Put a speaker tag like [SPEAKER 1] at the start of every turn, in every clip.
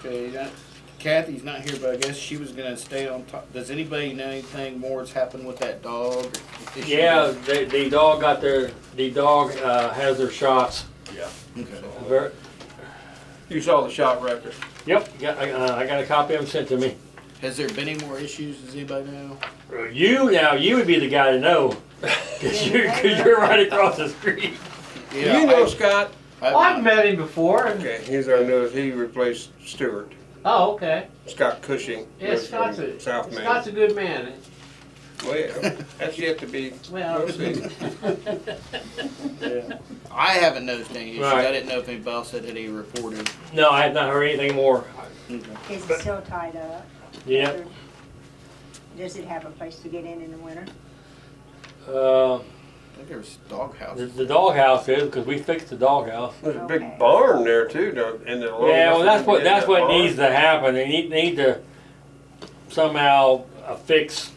[SPEAKER 1] Okay, that- Kathy's not here, but I guess she was gonna stay on top. Does anybody know anything more has happened with that dog? or issue?
[SPEAKER 2] Yeah, the, the dog got their, the dog, uh, has their shots.
[SPEAKER 3] Yeah.
[SPEAKER 1] Okay.
[SPEAKER 2] Ver-
[SPEAKER 3] You saw the shot record.
[SPEAKER 2] Yep, got, I, uh, I got a copy of them sent to me.
[SPEAKER 1] Has there been any more issues? Does anybody know?
[SPEAKER 2] You now, you would be the guy to know, cause you're, cause you're right across the street.
[SPEAKER 1] Yeah,
[SPEAKER 3] you know Scott?
[SPEAKER 1] I-
[SPEAKER 4] Well, Oh, I've met him before. And,
[SPEAKER 3] Okay, he's our newest. He replaced Stewart.
[SPEAKER 4] oh, okay.
[SPEAKER 3] Scott Cushing.
[SPEAKER 4] Yeah,
[SPEAKER 3] lives
[SPEAKER 4] Scott's
[SPEAKER 3] in
[SPEAKER 4] a
[SPEAKER 3] South Main.
[SPEAKER 4] Scott's a good man.
[SPEAKER 3] Well, that's yet to be.
[SPEAKER 4] Well,
[SPEAKER 3] we'll see.
[SPEAKER 1] yeah. I haven't noticed any issues. I
[SPEAKER 2] Right.
[SPEAKER 1] didn't know if anybody else had any reported.
[SPEAKER 2] No, I have not heard anything more.
[SPEAKER 5] Is it still tied up?
[SPEAKER 2] Yeah,
[SPEAKER 5] Does it have a place to get in in the winter?
[SPEAKER 2] uh,
[SPEAKER 1] I think there was dog
[SPEAKER 2] the,
[SPEAKER 1] houses.
[SPEAKER 2] the doghouse is, cause we fixed the doghouse.
[SPEAKER 3] There's a
[SPEAKER 5] Okay.
[SPEAKER 3] big barn there too, though, in the.
[SPEAKER 2] Yeah, well, Oh, that's what, that's what needs to happen, they need, need to somehow uh, fix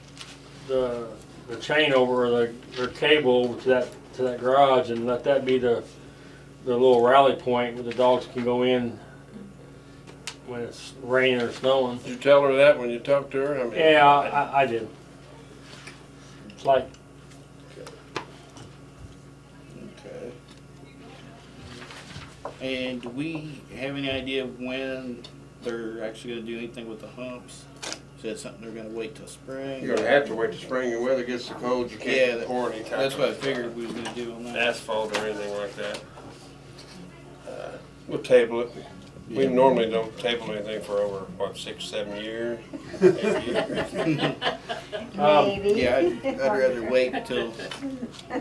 [SPEAKER 2] the, the chain over, the, their cable over to that, to that garage and let that be the, the little rally point where the dogs can go in when it's raining or snowing.
[SPEAKER 3] Did you tell her that when you talked to her? I mean,
[SPEAKER 2] Yeah, I, I did. It's like,
[SPEAKER 1] Okay. And do we have any idea of when they're actually gonna do anything with the humps? Is that something they're gonna wait till spring?
[SPEAKER 3] You're gonna have to wait till spring and weather gets so cold, you
[SPEAKER 1] Yeah,
[SPEAKER 3] can't
[SPEAKER 1] that-
[SPEAKER 3] pour any type.
[SPEAKER 1] That's what I
[SPEAKER 3] of
[SPEAKER 1] figured we was gonna do on that.
[SPEAKER 3] Asphalt or anything like that. Uh, We'll table it. We normally don't table anything for over, what, six, seven years? Eight years.
[SPEAKER 2] Um,
[SPEAKER 5] Maybe.
[SPEAKER 1] Yeah, I'd, I'd rather wait until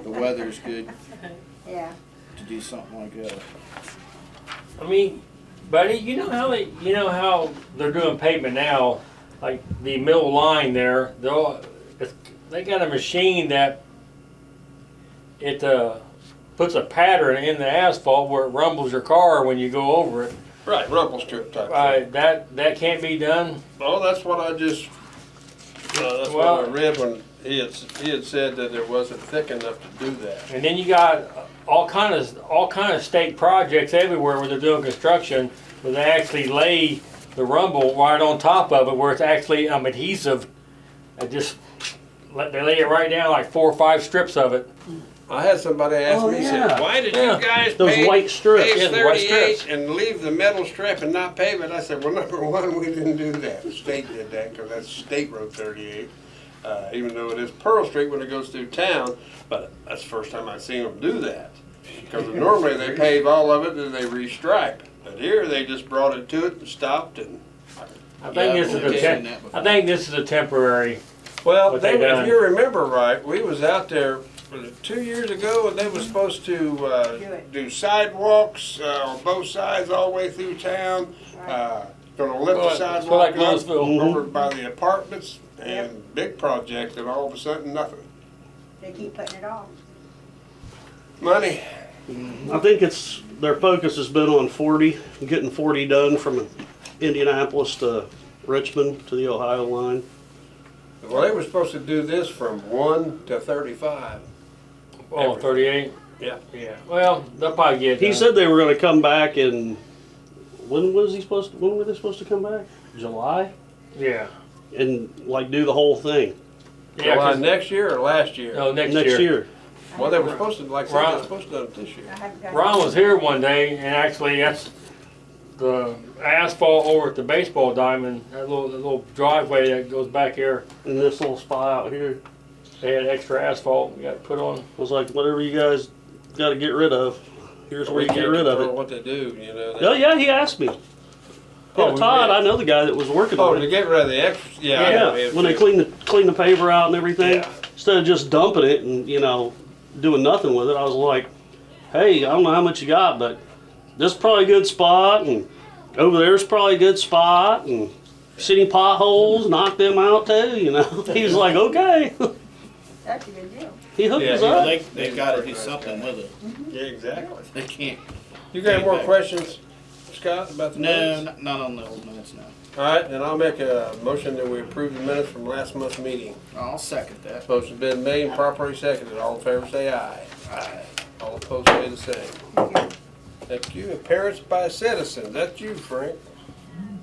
[SPEAKER 1] the weather's good
[SPEAKER 5] Yeah,
[SPEAKER 1] to do something like that.
[SPEAKER 2] I mean, buddy, you know how they, you know how they're doing pavement now, like the middle line there. They'll, it's, they got a machine that it uh, puts a pattern in the asphalt where it rumbles your car when you go over it.
[SPEAKER 3] Right, rumble strip type.
[SPEAKER 2] Uh,
[SPEAKER 3] thing.
[SPEAKER 2] that that can't be done.
[SPEAKER 3] Well, that's what I just, uh, that's what I read when he had, he had said that it wasn't thick enough to do that.
[SPEAKER 2] And then you got all kind of all kind of state projects everywhere where they're doing construction, where they actually lay the rumble right on top of it, where it's actually um, adhesive. I just let they lay it right down like four or five strips of it.
[SPEAKER 3] I had somebody ask
[SPEAKER 2] Oh,
[SPEAKER 3] me,
[SPEAKER 2] yeah.
[SPEAKER 3] said, why did you
[SPEAKER 2] Yeah.
[SPEAKER 3] guys
[SPEAKER 2] Those
[SPEAKER 3] pave,
[SPEAKER 2] white strips, yeah,
[SPEAKER 3] pave
[SPEAKER 2] the white strips.
[SPEAKER 3] thirty-eight and leave the metal strip and not pave it? I said, well, number one, we didn't do that. The state did that because that's State Road thirty-eight. Uh, even though it is Pearl Street when it goes through town, but that's the first time I've seen them do that. Because normally they pave all of it and they restripe. But here, they just brought it to it and stopped and
[SPEAKER 2] I
[SPEAKER 1] Yeah,
[SPEAKER 2] think this is
[SPEAKER 1] I've
[SPEAKER 2] a
[SPEAKER 1] seen
[SPEAKER 2] tem-
[SPEAKER 1] that before.
[SPEAKER 2] I think this is a temporary.
[SPEAKER 3] Well,
[SPEAKER 2] what
[SPEAKER 3] they,
[SPEAKER 2] they done.
[SPEAKER 3] if you remember right, we was out there was it two years ago, and they was supposed to
[SPEAKER 5] Mm-hmm. Do
[SPEAKER 3] uh,
[SPEAKER 5] it.
[SPEAKER 3] do sidewalks uh, on both sides all the way through town.
[SPEAKER 5] right.
[SPEAKER 3] Uh, gonna lift
[SPEAKER 2] Well,
[SPEAKER 3] the
[SPEAKER 2] it's
[SPEAKER 3] sidewalk
[SPEAKER 2] like Mm-hmm.
[SPEAKER 3] up
[SPEAKER 2] Louisville.
[SPEAKER 3] over by the apartments
[SPEAKER 5] Yep.
[SPEAKER 3] and big project, and all of a sudden nothing.
[SPEAKER 5] They keep putting it off.
[SPEAKER 3] Money.
[SPEAKER 6] I think it's, their focus has been on 40, getting 40 done from Indianapolis to Richmond to the Ohio line.
[SPEAKER 3] Well, they were supposed to do this from one to thirty-five.
[SPEAKER 2] Oh, 38.
[SPEAKER 3] Yeah.
[SPEAKER 2] Yeah. Well, they'll probably get. it
[SPEAKER 6] He
[SPEAKER 2] done.
[SPEAKER 6] said they were going to come back and, when was he supposed, to- when were they supposed to come back? July?
[SPEAKER 2] Yeah.
[SPEAKER 6] And like do the whole thing,
[SPEAKER 2] Yeah.
[SPEAKER 3] July
[SPEAKER 2] 'cause-
[SPEAKER 3] next year or last year?
[SPEAKER 2] no, next,
[SPEAKER 6] next
[SPEAKER 2] year.
[SPEAKER 6] year.
[SPEAKER 3] Well, they were supposed to, like, I said, they were
[SPEAKER 2] Ron-
[SPEAKER 3] supposed to do it this year.
[SPEAKER 5] I haven't got.
[SPEAKER 2] Ron was here one day, and actually, that's the asphalt over at the baseball diamond, that little, that little driveway that goes back there.
[SPEAKER 6] And this little spot out here
[SPEAKER 2] They had extra asphalt we got put on.
[SPEAKER 6] was like, whatever you guys got to get rid of, here's where you get rid of it.
[SPEAKER 3] What they do, you know. they-
[SPEAKER 6] Oh, yeah, he asked me.
[SPEAKER 3] Oh,
[SPEAKER 6] Yeah,
[SPEAKER 3] we
[SPEAKER 6] Todd,
[SPEAKER 3] did.
[SPEAKER 6] I know the guy that was working
[SPEAKER 3] Oh,
[SPEAKER 6] on
[SPEAKER 3] to
[SPEAKER 6] it.
[SPEAKER 3] get rid of the extra, yeah. I know,
[SPEAKER 6] Yeah,
[SPEAKER 3] it-
[SPEAKER 6] when they clean the, clean the paver out and everything,
[SPEAKER 3] Yeah.
[SPEAKER 6] instead of just dumping it and, you know, doing nothing with it, I was like, hey, I don't know how much you got, but this is probably a good spot, and over there's probably a good spot, and city potholes, knock them out too, you know? He was like, okay.
[SPEAKER 5] That's a good deal.
[SPEAKER 6] He hooked
[SPEAKER 3] Yeah,
[SPEAKER 6] us
[SPEAKER 3] he
[SPEAKER 6] up.
[SPEAKER 1] They, they gotta do something with it.
[SPEAKER 3] Yeah, exactly.
[SPEAKER 1] They can't.
[SPEAKER 3] You got any more questions, Scott, about the
[SPEAKER 1] No,
[SPEAKER 3] minutes?
[SPEAKER 1] not, not on the old minutes, no.
[SPEAKER 3] All right, then I'll make a motion that we approve the minutes from last month's meeting.
[SPEAKER 1] I'll second that.
[SPEAKER 3] Motion's been made and properly seconded. All in favor, say aye. Aye. All opposed, say the same. Thank you. Appearance by citizens. That's you, Frank.